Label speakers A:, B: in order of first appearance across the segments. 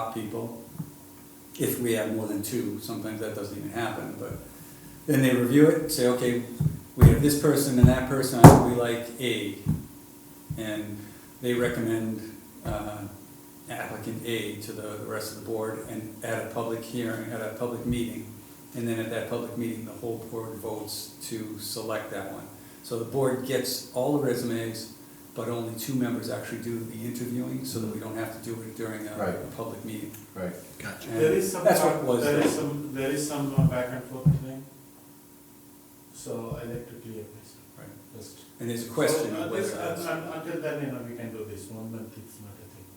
A: stop people. If we have more than two, sometimes that doesn't even happen, but then they review it, say, okay, we have this person and that person, we like A. And they recommend uh, applicant A to the the rest of the board and at a public hearing, at a public meeting. And then at that public meeting, the whole board votes to select that one. So the board gets all the resumes, but only two members actually do the interviewing, so that we don't have to do it during a,
B: Right.
A: a public meeting.
B: Right.
C: Gotcha.
A: And
D: There is some,
A: That's what it was.
D: there is some, there is some uh, back and forth thing. So I like to clear this
A: Right.
D: first.
A: And there's a question
D: So, uh,
A: of whether
D: this,
A: that's,
D: uh, un- Until then, you know, we can do this, one month it's not a thing.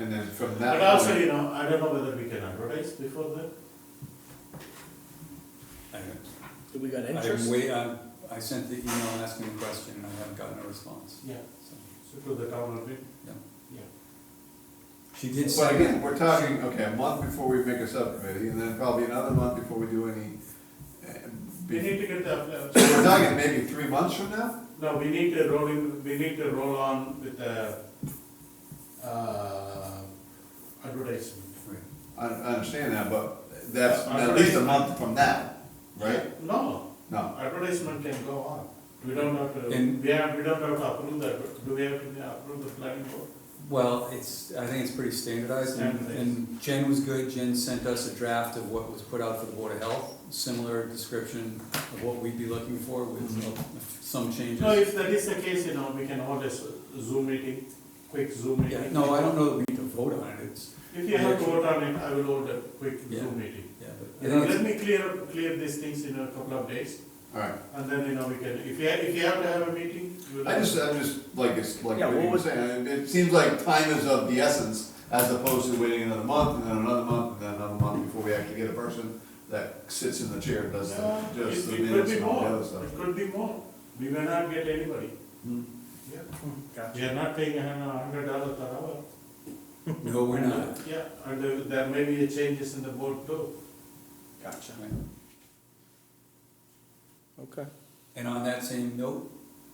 B: And then from
D: But also,
B: that
D: you know, I don't know whether we can advertise before that.
A: I don't-
C: Do we got
A: I'm
C: interest?
A: wait, I, I sent the email asking the question, and I haven't gotten a response,
D: Yeah.
A: so,
D: So to the town admin.
A: yeah.
D: Yeah.
A: She did
B: point,
A: say.
B: well, again, we're talking, okay, a month before we make a subcommittee, and then probably another month before we do any. uh,
D: We need
B: be-
D: to get the. uh,
B: So we're talking maybe three months from now?
D: No, we need to roll in, we need to roll on with the, uh, advertisement.
A: Right.
B: I, I understand that, but that's
D: Uh,
B: at least a month from now, right?
D: No,
B: No,
D: advertisement can go on. We don't have to,
A: And-
D: we have, we don't have to approve that, do we have to approve the planning board?
A: Well, it's, I think it's pretty standardized, and-
D: Standardized.
A: and Jen was good, Jen sent us a draft of what was put out for the Board of Health, similar description of what we'd be looking for with uh, some changes.
D: Mm-hmm. No, if that is the case, you know, we can hold a Zoom meeting, quick Zoom
A: Yeah,
D: meeting.
A: no, I don't know that we need to vote on it, it's,
D: If you have to vote on it, I will hold a quick
A: Yeah.
D: Zoom meeting.
A: yeah,
D: You
A: but
D: know,
A: I
D: let
A: think
D: me clear, up- clear these things in a couple of days,
B: alright.
D: and then, you know, we can, if you, if you have to have a meeting, we'll.
B: I just, I'm just, like, it's, like
C: Yeah,
B: what
C: what
B: you were
C: was-
B: saying, it it seems like time is of the essence, as opposed to waiting another month, and then another month, and then another month before we actually get a person that sits in the chair and does the,
D: Yeah,
B: does
D: It
B: the
D: it could
B: minutes
D: be
B: and all the
D: more,
B: other stuff.
D: it could be more, we may not get anybody,
B: Hmm.
D: yeah.
C: Gotcha.
D: We are not paying a hundred dollars per hour.
A: it's- No, we're not.
D: Yeah, and there- there may be changes in the board too.
C: Gotcha.
A: Right.
C: Okay.
A: And on that same note,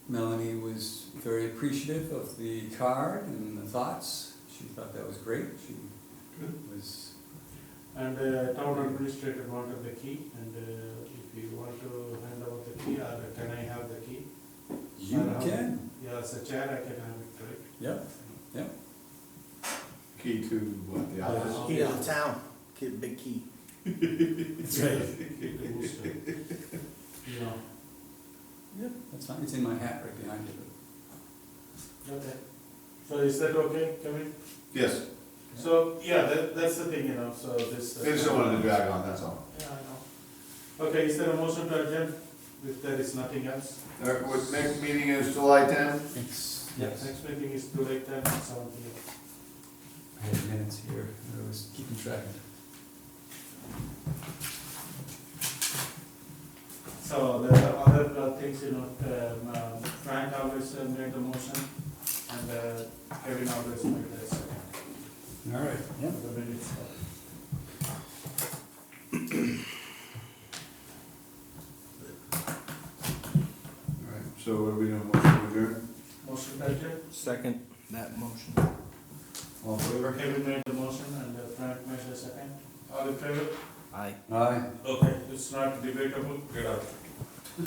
A: Melanie was very appreciative of the card and the thoughts. She thought that was great. She was,
D: And uh, town administrator wanted the key, and uh, if you want to hand out the key, or can I have the key?
A: you
D: Uh-huh.
A: can,
D: Yeah, as a chair, I can have it, right?
A: yep, yep.
B: Key to what, the office?
C: Key to the town, Key- big key.
A: That's right.
D: The booster. You know,
A: Yep, that's fine. It's in my hat right behind you.
D: okay. So is that okay, Kevin?
B: Yes,
D: So, yeah, that, that's the thing, you know, so this. uh,
B: they just don't want to drag on, that's all.
D: Yeah, I know. Okay, is there a motion to adjourn? If there is nothing else?
B: All right, what, next meeting is July tenth?
A: It's,
D: Yeah, next meeting is two eight ten, seven P M.
A: I had minutes here. I was keeping track.
D: So the other uh, things, you know, um, uh, Frank always uh, made the motion and uh, Kevin always made the second.
A: All right. Yep.
D: The minutes.
B: All right, so what are we doing, motion to adjourn?
D: Motion by Jay,
C: Second that motion.
B: All in favor?
D: Kevin made the motion and uh, Frank made the second. All in favor?
C: Aye.
A: Aye.
D: Okay. It's not debatable, get out.